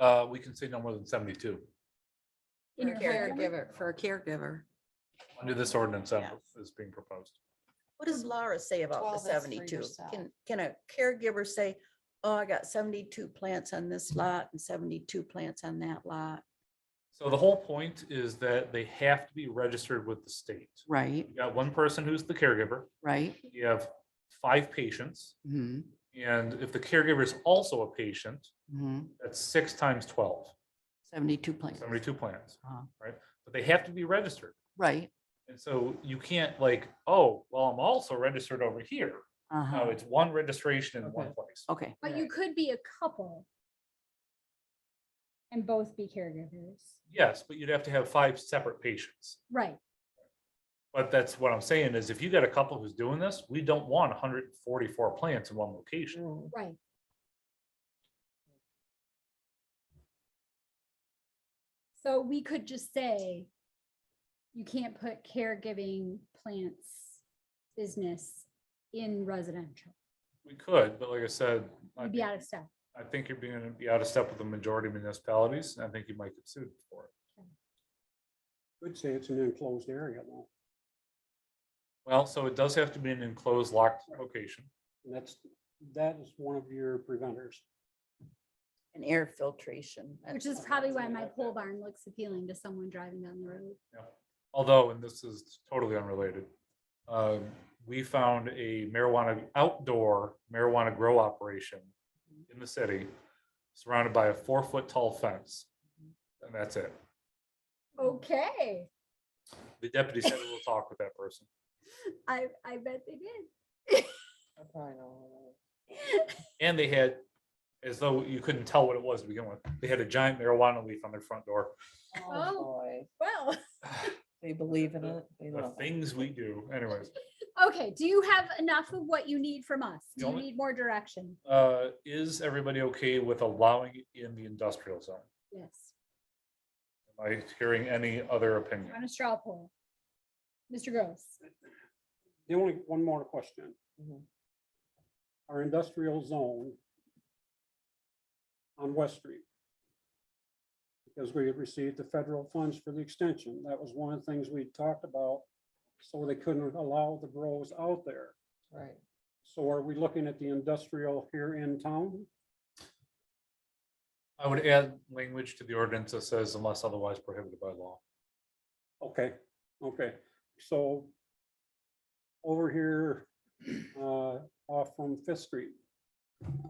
Uh, we can say no more than seventy-two. In For a your caregiver, for a caregiver. Under this ordinance that is being proposed. What does Laura say about 12 the is for seventy-two? yourself. Can, can a caregiver say, oh, I got seventy-two plants on this lot and seventy-two plants on that lot? So the whole point is that they have to be registered with the state. Right, You got one person who's the caregiver, right. you have five patients, Mhm, and if the caregiver is also a patient, mhm. that's six times 12, Seventy-two plants. 72 plans, Uh-huh. right? But they have to be registered. Right. And so you can't like, oh, well, I'm also registered over here. No, Uh-huh. it's one registration in one place. Okay, But you could be a couple. And both be caregivers. Yes, but you'd have to have five separate patients. Right. But that's what I'm saying is if you got a couple who's doing this, we don't want hundred and forty-four plants in one location. Right. So we could just say. You can't put caregiving plants business in residential. We could, but like I said, I You'd think- be out of step. I think you're being, be out of step with the majority of municipalities, and I think you might get sued for it. Could say it's an enclosed area, though. Well, so it does have to be an enclosed locked location. And That's, that is one of your preventers. And air filtration. Which is probably why my pole barn looks appealing to someone driving down the road. Although, and this is totally unrelated, um, we found a marijuana, outdoor marijuana grow operation in the city surrounded by a four-foot tall fence. And that's it. Okay, The deputy said we'll talk with that person. I, I bet they did. And they had, as though you couldn't tell what it was to begin with, they had a giant marijuana leaf on their front door. Oh. boy. Well. They believe in The- it. They The love it. things we do anyways. Okay, do you have enough of what you need from us? The Do you only- need more direction? Uh, is everybody okay with allowing it in the industrial zone? Yes, Am I hearing any other opinion? on a straw poll. Mr. Gross, The only, one more question. Mhm. Our industrial zone on West Street. Because we had received the federal funds for the extension. That was one of the things we talked about. So they couldn't allow the grows out there. Right. So are we looking at the industrial here in town? I would add language to the ordinance that says unless otherwise prohibited by law. Okay, okay, so over here, uh, off from Fifth Street,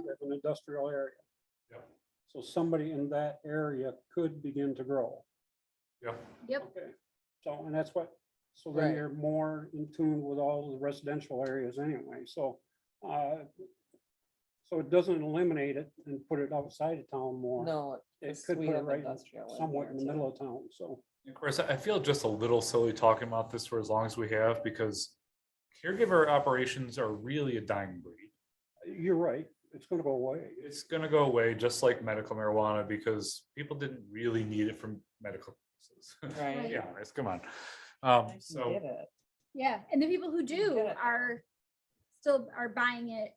there's an industrial area. Yep. So somebody in that area could begin to grow. Yeah, yep, Okay, so, and that's what, so then Right. you're more in tune with all the residential areas anyway, so, uh, so it doesn't eliminate it and put it outside of town more. No. It it's could sweet put it of right industrial in somewhat in the there, too. middle of town, so. of course, I feel just a little silly talking about this for as long as we have because caregiver operations are really a dying breed. You're right, it's gonna go away. It's gonna go away just like medical marijuana because people didn't really need it from medical. purposes. Right. Right. Yeah, it's, come on. I Um, can so get it. yeah, and the people who do get it. are still are buying it.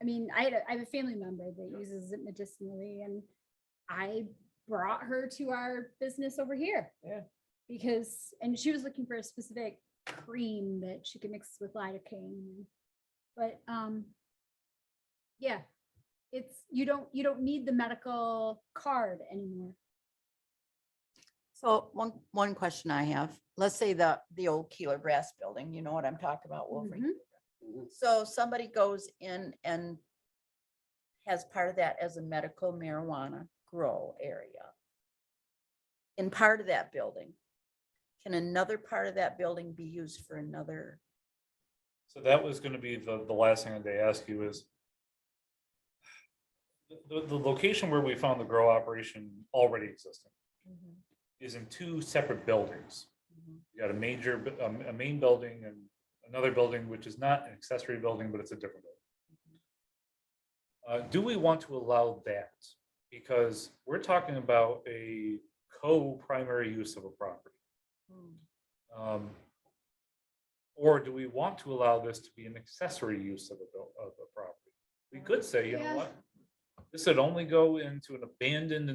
I mean, I had, a- I have a family member that uses it medicinally and I brought her to our business over here. Yeah. Because, and she was looking for a specific cream that she could mix with lidocaine. But, um, yeah, it's, you don't, you don't need the medical card anymore. So one, one question I have, let's say the, the old Keeler Brass Building, you know what I'm talking about, Wolverine? So somebody goes in and has part of that as a medical marijuana grow area. In part of that building, can another part of that building be used for another? So that was gonna be the, the last thing they ask you is the, the- the location where we found the grow operation already existing is in two separate buildings. Mm-hmm. You got a major, bu- um, a main building and another building, which is not an accessory building, but it's a different building. Uh, do we want to allow that? Because we're talking about a co-primary use of a property. Hmm. Um, Or do we want to allow this to be an accessory use of a, buil- of a property? We could say, you know Yeah. what? This would only go into an abandoned